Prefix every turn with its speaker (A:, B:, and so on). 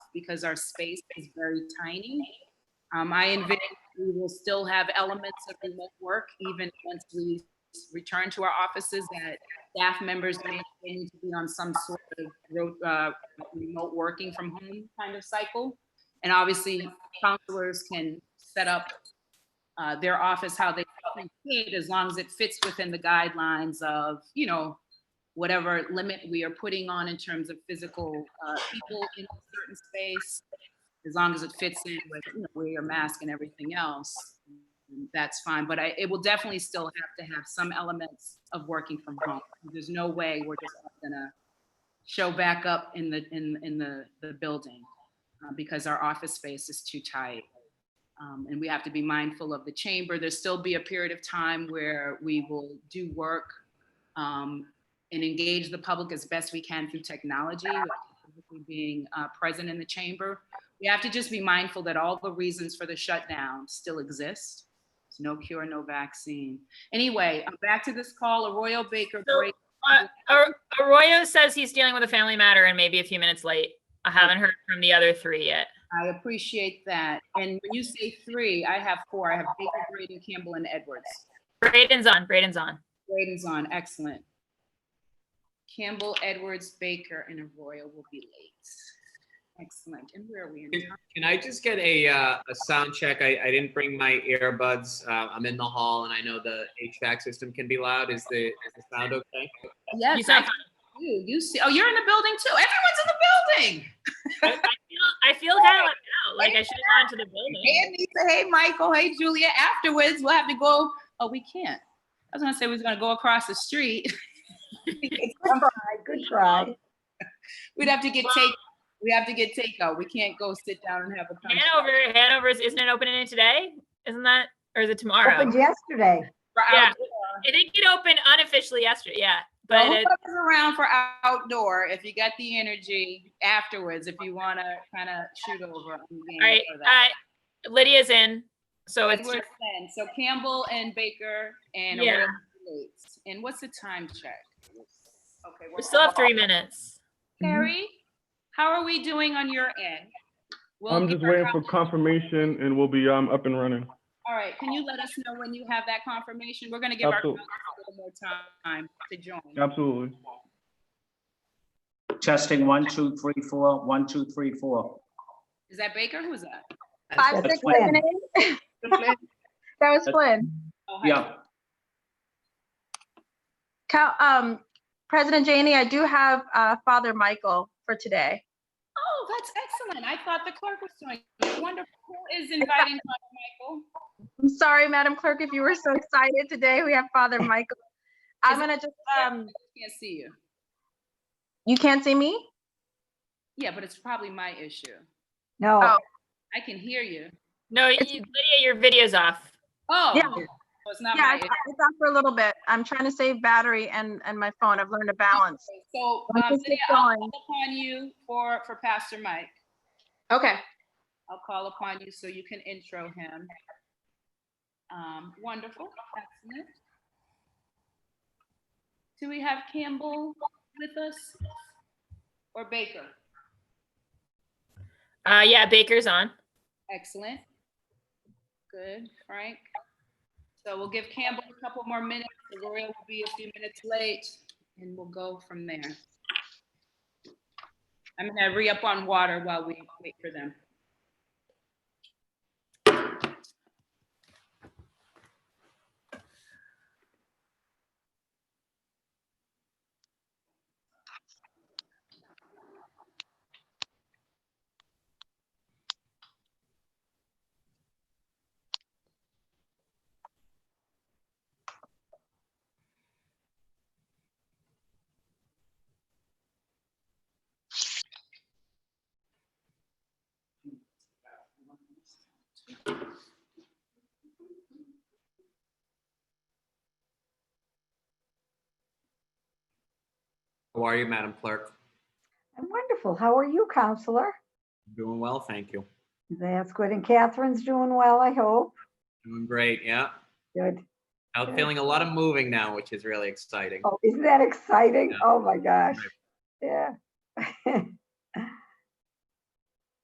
A: because our space is very tiny. Um, I envision we will still have elements of remote work even once we return to our offices that staff members may continue to be on some sort of ro- uh, remote working from home kind of cycle. And obviously, counselors can set up uh, their office how they see it, as long as it fits within the guidelines of, you know, whatever limit we are putting on in terms of physical uh, people in a certain space, as long as it fits in with, you know, wear your mask and everything else, that's fine. But I, it will definitely still have to have some elements of working from home. There's no way we're just gonna show back up in the, in, in the, the building uh, because our office space is too tight. Um, and we have to be mindful of the chamber. There'll still be a period of time where we will do work um, and engage the public as best we can through technology, specifically being uh, present in the chamber. We have to just be mindful that all the reasons for the shutdown still exist. There's no cure, no vaccine. Anyway, uh, back to this call, Arroyo Baker.
B: So-
A: Brady-
B: Ar- Arroyo says he's dealing with a family matter and maybe a few minutes late. I haven't heard from the other three yet.
A: I appreciate that. And when you say three, I have four. I have Baker, Braden, Campbell, and Edwards.
B: Braden's on, Braden's on.
A: Braden's on, excellent. Campbell, Edwards, Baker, and Arroyo will be late. Excellent. And where are we in time?
C: Can I just get a, uh, a sound check? I, I didn't bring my earbuds. Uh, I'm in the hall and I know the HVAC system can be loud. Is the, is the sound okay?
A: Yes, I
B: You sound
A: You, you see, oh, you're in the building too. Everyone's in the building.
B: I feel kind of left out, like I should have gone to the building.
A: Hey, Anissa, hey, Michael, hey, Julia. Afterwards, we'll have to go, oh, we can't. I was gonna say we was gonna go across the street.
D: Good try, good try.
A: We'd have to get take, we have to get takeout. We can't go sit down and have a conversation.
B: Hanover, Hanover's, isn't it opening today? Isn't that, or is it tomorrow?
D: Opened yesterday.
A: For
B: Yeah.
A: outdoor.
B: It did get open unofficially yesterday, yeah. But
A: Well,
B: it,
A: whoever's around for outdoor, if you got the energy afterwards, if you wanna kind of shoot over. I'm game
B: all right,
A: for that.
B: uh, Lydia's in, so it's,
A: Edwards then. So Campbell and Baker and
B: Yeah.
A: Arroyo Bates. And what's the time check? Okay,
B: we still have three minutes.
A: Carrie, how are we doing on your end? We'll
E: I'm
A: give
E: just
A: our
E: waiting for
A: con-
E: confirmation and we'll be, um, up and running.
A: All right, can you let us know when you have that confirmation? We're gonna give our
E: Absolutely.
A: counselors a little more time to join.
E: Absolutely.
F: Testing one, two, three, four, one, two, three, four.
A: Is that Baker? Who's that?
G: Five,
F: That's
G: six,
D: Flynn.
G: seven, eight. That was
F: That's-
G: Flynn.
A: Oh, hi.
F: Yeah,
G: Cow, um, President Janey, I do have, uh, Father Michael for today.
A: Oh, that's excellent. I thought the clerk was doing it. wonderful. Who is inviting Father Michael?
G: I'm sorry, Madam Clerk, if you were so excited today. We have Father Michael. I'm
A: Is-
G: gonna just, um,
A: Can't see you.
G: you can't see me?
A: Yeah, but it's probably my issue.
D: No,
G: Oh.
A: I can hear you.
B: No, you- Lydia, your video's off.
A: Oh,
G: Yeah.
A: so it's not
G: Yeah,
A: my
G: it's
A: issue.
G: it's off for a little bit. I'm trying to save battery and, and my phone. I've learned to balance.
A: So,
G: Let's
A: um,
G: just
A: Lydia,
G: get
A: I'll
G: going.
A: call upon you for, for Pastor Mike.
G: Okay.
A: I'll call upon you so you can intro him. Um, wonderful, excellent. Do we have Campbell with us? Or Baker?
B: Uh, yeah, Baker's on.
A: Excellent. Good, Frank. So we'll give Campbell a couple more minutes. Gloria will be a few minutes late and we'll go from there. I'm gonna re-up on water while we wait for them.
C: How are you, Madam Clerk?
D: I'm wonderful. How are you, Counselor?
C: Doing well, thank you.
D: That's good. And Catherine's doing well, I hope.
C: Doing great, yeah.
D: Good.
C: Out feeling a lot of moving now, which is really exciting.
D: Oh, isn't that exciting?
C: Yeah.
D: Oh, my gosh. Yeah.